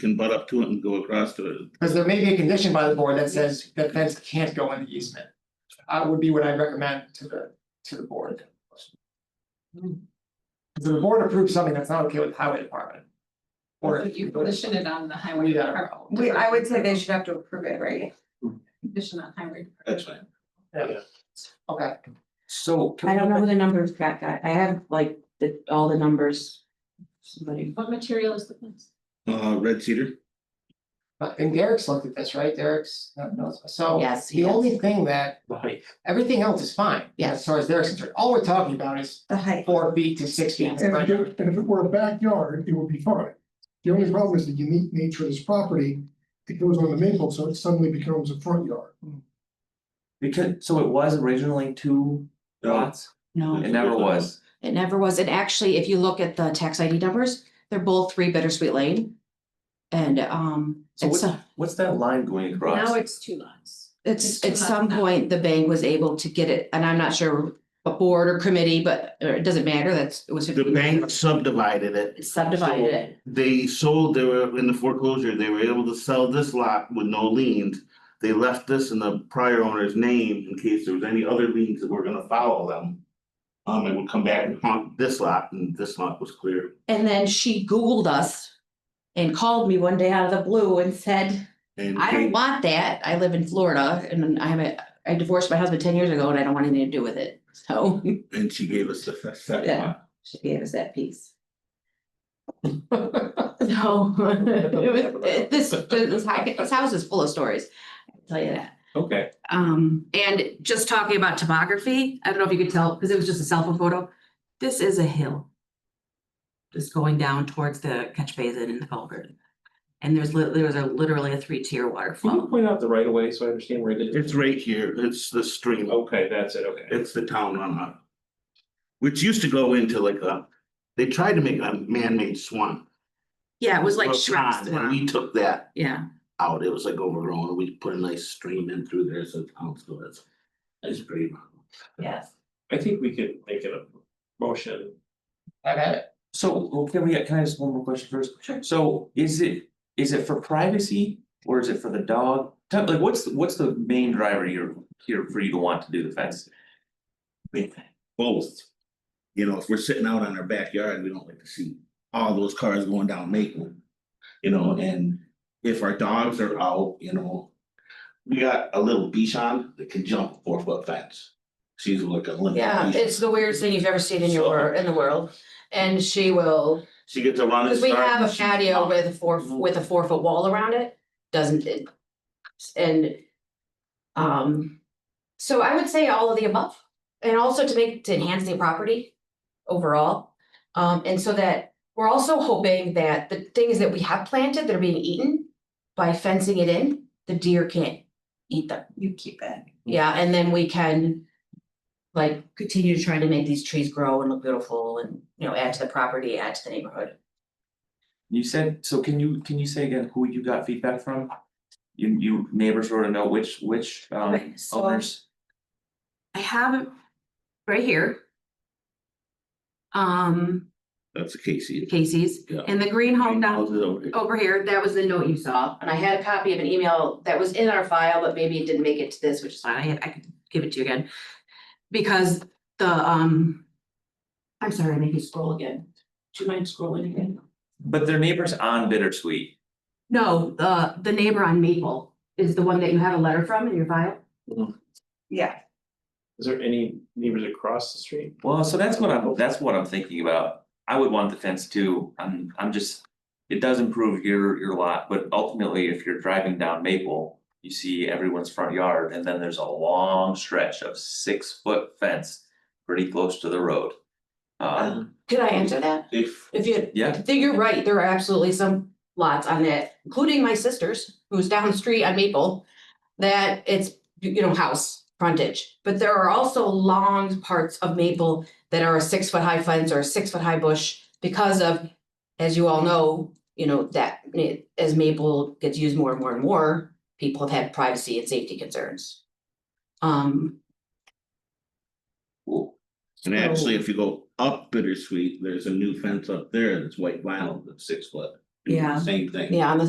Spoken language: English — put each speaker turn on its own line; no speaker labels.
can butt up to it and go across to it.
Because there may be a condition by the board that says that fence can't go in the easement. Uh, would be what I recommend to the, to the board. Because the board approves something that's not okay with the highway department. Or.
If you condition it on the highway
Yeah.
department.
We, I would say they should have to approve it, right?
Condition on highway. department.
That's fine.
Yeah. Okay,
So.
I don't know who the numbers got, got, I have like the, all the numbers. Somebody,
What material is the fence?
Uh, red cedar,
Uh, and Derek's looked at this, right? Derek's, no, no, so.
yes,
The
yes,
only thing that,
Right,
everything else is fine, as
Yes.
far as Derek's concerned. All we're talking about is
The height.
four feet to six feet.
Yes.
And if it, and if it were a backyard, it would be fine. The only problem is the unique nature of this property, it goes on the maple, so it suddenly becomes a front yard.
because, so it was originally two
no,
lots,
no,
it never was.
it never was, and actually, if you look at the tax ID numbers, they're both three Bittersweet Lane. And, um,
So
it's,
what's,
a-
what's that line going
Now
across?
it's two lots.
it's,
it's
at
not
some
enough.
point, the bank was able to get it, and I'm not sure. A board or committee, but, or it doesn't matter, that's, it was.
the
50
bank subdivided it.
Subdivided
So
it,
They sold, they were in the foreclosure, they were able to sell this lot with no liens. They left this in the prior owner's name in case there was any other liens that were gonna follow them. Um, it would come back and haunt this lot, and this lot was clear.
and then she Googled us. And called me one day out of the blue and said,
And
I
they-
don't want that. I live in Florida and I'm a, I divorced my husband ten years ago and I don't want anything to do with it. So
And she gave us the se- second
Yeah.
lot.
she gave us that piece. So it was, it- this, this, hi- this house is full of stories. I'll tell you that.
Okay,
Um, and just talking about topography, I don't know if you could tell, because it was just a cell phone photo. This is a hill. Just going down towards the catch basin and the culvert. And there's lit- there was a literally a three-tier
can you
waterfall.
point out the right of way so I understand where it is?
It's right here, it's the stream.
Okay, that's it, okay.
It's the town runoff. Which used to go into like a, they tried to make a man-made swamp.
Yeah, it was
a
like Shrek's
pond, And we
swamp.
took that
Yeah,
out, it was like overgrown, we put a nice stream in through there, so the town's good. It's- It's pretty.
yes.
I think we could make it a motion.
I got it.
So, can we, can I ask one more question first? Sure. So is it, is it for privacy or is it for the dog? Tell- Like, what's, what's the main driver here, here for you to want to do the fence?
Both. You know, if we're sitting out on our backyard, we don't like to see all those cars going down Maple. You know, and if our dogs are out, you know. We got a little Bichon that can jump a four-foot fence. She's like a little.
Yeah,
Bichon.
it's the weirdest thing you've ever seen in your, wor- in the world, and she will,
She gets a run and
because we
start.
have
and
a
she-
patio with a four, with a four foot wall around it, doesn't it? And, um, so I would say all of the above, and also to make, to enhance the property overall. Um, and so that, we're also hoping that the things that we have planted that are being eaten, by fencing it in, the deer can't eat them.
You keep it.
Yeah, and then we can like continue trying to make these trees grow and look beautiful and, you know, add to the property, add to the neighborhood.
You said, so can you, can you say again who you got feedback from? You, you neighbors wrote a note, which, which, um,
Okay, so-
owners?
I have it right here. Um,
That's the Casey.
Casey's
Yeah.
and the green home down
Houses over here.
over here, that was the note you saw. And I had a copy of an email that was in our file, but maybe it didn't make it to this, which is fine. I had, I could give it to you again. Because the, um, I'm sorry, I made you scroll again. Do you mind scrolling again?
But their neighbors on Bittersweet.
No, the, the neighbor on Maple is the one that you have a letter from in your file?
Yeah.
Is there any neighbors across the street?
Well, so that's what I'm, that's what I'm thinking about. I would want the fence too. I'm, I'm just. It does improve your, your lot, but ultimately, if you're driving down Maple, you see everyone's front yard and then there's a long stretch of six foot fence. Pretty close to the road. Um,
Could I answer that?
If,
If you, I
yeah,
think you're right, there are absolutely some lots on that, including my sister's, who's down the street on Maple. That it's, you know, house frontage, but there are also long parts of Maple that are a six foot high fence or a six foot high bush. Because of, as you all know, you know, that eh, as Maple gets used more and more and more, people have had privacy and safety concerns. Um,
and actually, if you go up Bittersweet, there's a new fence up there that's white vinyl that's six foot. Doing the
Yeah.
Same thing.
Yeah, on the